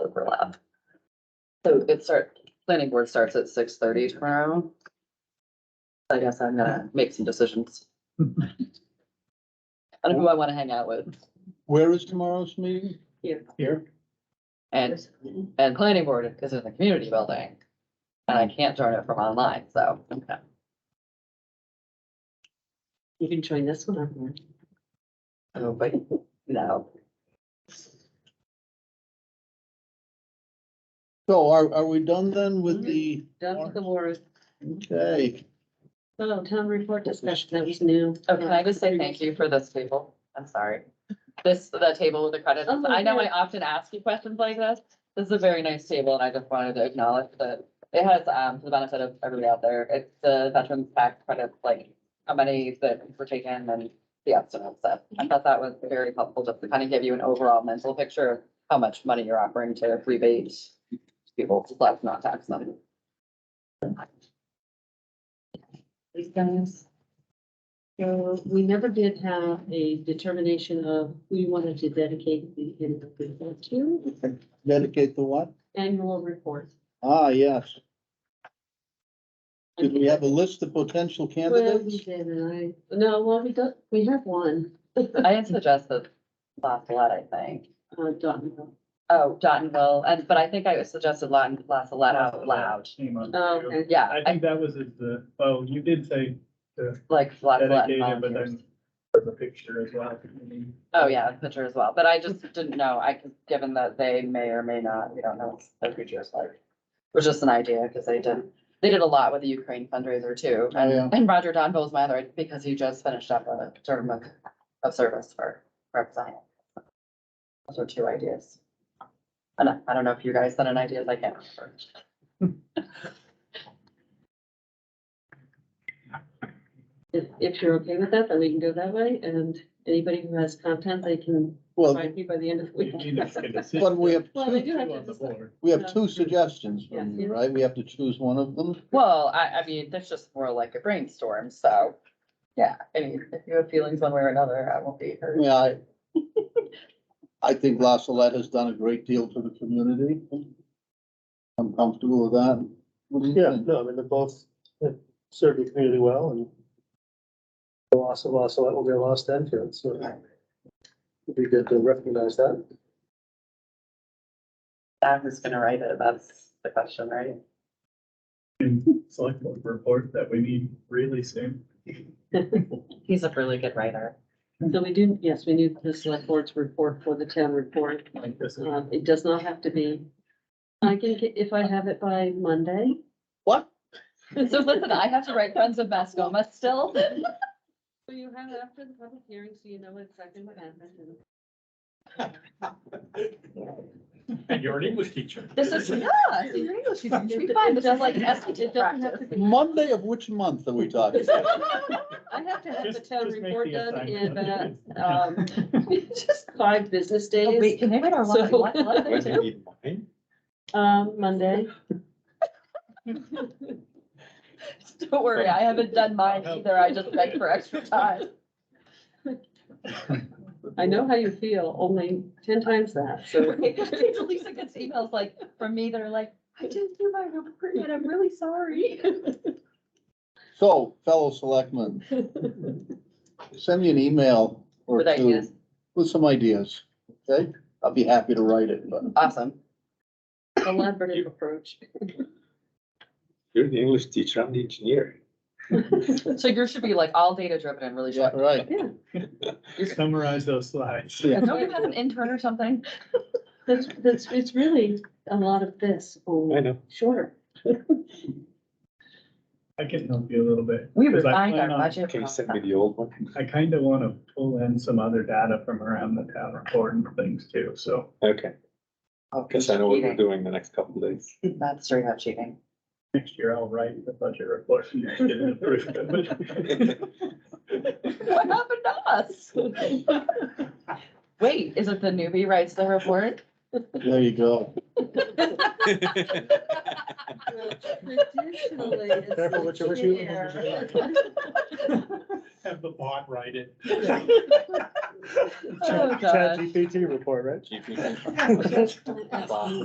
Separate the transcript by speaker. Speaker 1: So it start, planning board starts at six thirty tomorrow. I guess I'm gonna make some decisions. I don't know who I wanna hang out with
Speaker 2: Where is tomorrow's meeting?
Speaker 1: Here.
Speaker 2: Here?
Speaker 1: and, and planning board is in the community building. And I can't join it from online, so.
Speaker 3: You can join this one on
Speaker 1: Oh, but no,
Speaker 2: So are, are we done then with the,
Speaker 3: there. Done with the wars.
Speaker 2: okay,
Speaker 3: Oh, town report discussion, that was new.
Speaker 1: oh, can I just say thank you for this table? I'm sorry. This, the table with the credits.
Speaker 3: Oh,
Speaker 1: I know I
Speaker 3: yeah.
Speaker 1: often ask you questions like this. This is a very nice table and I just wanted to acknowledge that it has, um, for the benefit of everybody out there, it's the veterans tax credits, like how many that were taken and the estimate stuff. I thought that was very helpful just to kind of give you an overall mental picture of how much money you're offering to rebate people, plus not tax them. These guys.
Speaker 3: So we never did have a determination of who you wanted to dedicate the annual report to,
Speaker 2: dedicate the what?
Speaker 3: annual report.
Speaker 2: Ah, yes. Did we have a list of potential
Speaker 3: Well, we
Speaker 2: candidates?
Speaker 3: did, and I, no, well, we got, we have one,
Speaker 1: I had suggested last lot, I think.
Speaker 3: uh, Dotton.
Speaker 1: Oh, Dottonville, and, but I think I suggested Lon, last lot out uh, loud.
Speaker 4: Came up.
Speaker 3: Oh, okay.
Speaker 1: Yeah,
Speaker 4: I
Speaker 1: I
Speaker 4: think that was at the, oh, you did say
Speaker 1: like lot, lot
Speaker 4: dedicated, but
Speaker 1: volunteers.
Speaker 4: then for the picture as well.
Speaker 1: Oh, yeah, picture as well, but I just didn't know, I, could- given that they may or may not, we don't know what their future is like. It was just an idea, because they did, they did a lot with the Ukraine fundraiser too,
Speaker 4: Oh,
Speaker 2: yeah.
Speaker 1: and, and Roger Donville is my other, because he just finished up a term of, of service for representing. Those are two ideas. And I, I don't know if you guys sent in ideas, I can't remember.
Speaker 3: If, if you're okay with that, then we can go that way, and anybody who has content, they can
Speaker 2: Well,
Speaker 3: find me by the end of the
Speaker 4: You
Speaker 3: week.
Speaker 4: need to make a decision.
Speaker 2: but we have,
Speaker 3: Well, they do have to
Speaker 4: On the board.
Speaker 2: we have two suggestions from
Speaker 3: Yeah.
Speaker 2: you, right? We have to choose one of them.
Speaker 1: Well, I, I mean, that's just more like a brainstorm, so, yeah, I mean, if you have feelings one way or another, I won't be hurt.
Speaker 2: Yeah, I, I think La Salette has done a great deal for the community. I'm comfortable with that. What do you
Speaker 5: Yeah,
Speaker 2: think?
Speaker 5: no, I mean, they're both, they've served the community well and the loss of loss, will be a lost Enfield, so it'd be good to recognize that.
Speaker 1: I'm just gonna write it, that's the question, right?
Speaker 4: And Select board report that we need really soon.
Speaker 1: He's a really good writer.
Speaker 3: So we do, yes, we need the select board's report for the town report.
Speaker 4: Like this is,
Speaker 3: Um, it does not have to be, I can get, if I have it by Monday.
Speaker 2: What?
Speaker 1: So listen, I have to write Friends of Mascoma still?
Speaker 3: So you have it after the public hearing, so you know exactly what happened.
Speaker 4: and you're an English teacher.
Speaker 1: This is, yeah, so your English, you can be fine, this is like SAT
Speaker 3: It doesn't have to
Speaker 1: practice.
Speaker 3: be-
Speaker 2: Monday of which month are we talking?
Speaker 3: I have to have the
Speaker 4: Just-
Speaker 3: town
Speaker 4: just make
Speaker 3: report
Speaker 4: the
Speaker 3: done in, uh,
Speaker 4: assignment.
Speaker 3: um, just five business days,
Speaker 1: can they write our
Speaker 3: So-
Speaker 1: What?
Speaker 6: do you need mine?
Speaker 3: um, Monday.
Speaker 1: Don't worry, I haven't done mine either, I just begged for extra time.
Speaker 3: I know how you feel, only ten times that, so.
Speaker 1: Lisa gets emails like, from me, they're like, I didn't do my report, and I'm really sorry.
Speaker 2: So, fellow selectmen, send me an email or
Speaker 1: With
Speaker 2: two
Speaker 1: ideas,
Speaker 2: with some ideas, okay? I'll be happy to write it, but
Speaker 1: awesome.
Speaker 3: Collaborative approach.
Speaker 6: You're the English teacher, I'm the engineer.
Speaker 1: So yours should be like all data driven and really
Speaker 2: yeah,
Speaker 1: short.
Speaker 2: right.
Speaker 4: Summarize those slides.
Speaker 2: Yeah.
Speaker 1: Don't you have an intern or something?
Speaker 3: That's, that's, it's really a lot of this,
Speaker 6: I
Speaker 3: only
Speaker 6: know.
Speaker 3: shorter.
Speaker 4: I can help you a little bit.
Speaker 1: We
Speaker 4: 'cause I
Speaker 1: refined our
Speaker 4: plan on-
Speaker 1: budget.
Speaker 6: Can you send me
Speaker 1: process.
Speaker 6: the old one?
Speaker 4: I kind of want to pull in some other data from around the town report and things too, so.
Speaker 6: Okay,
Speaker 1: Oh,
Speaker 6: guess I know what we're
Speaker 1: cheating.
Speaker 6: doing the next couple days.
Speaker 1: That's straight up cheating.
Speaker 4: Next year I'll write the budget report and get it approved.
Speaker 1: What happened to us? Wait, is it the newbie writes the report?
Speaker 2: There you go.
Speaker 3: Traditionally, it's
Speaker 5: Careful what you wish you-
Speaker 3: here.
Speaker 4: Have the bot write it.
Speaker 1: Oh,
Speaker 5: Chat
Speaker 1: gosh.
Speaker 5: GPT report, right?
Speaker 6: GPT.
Speaker 3: That's-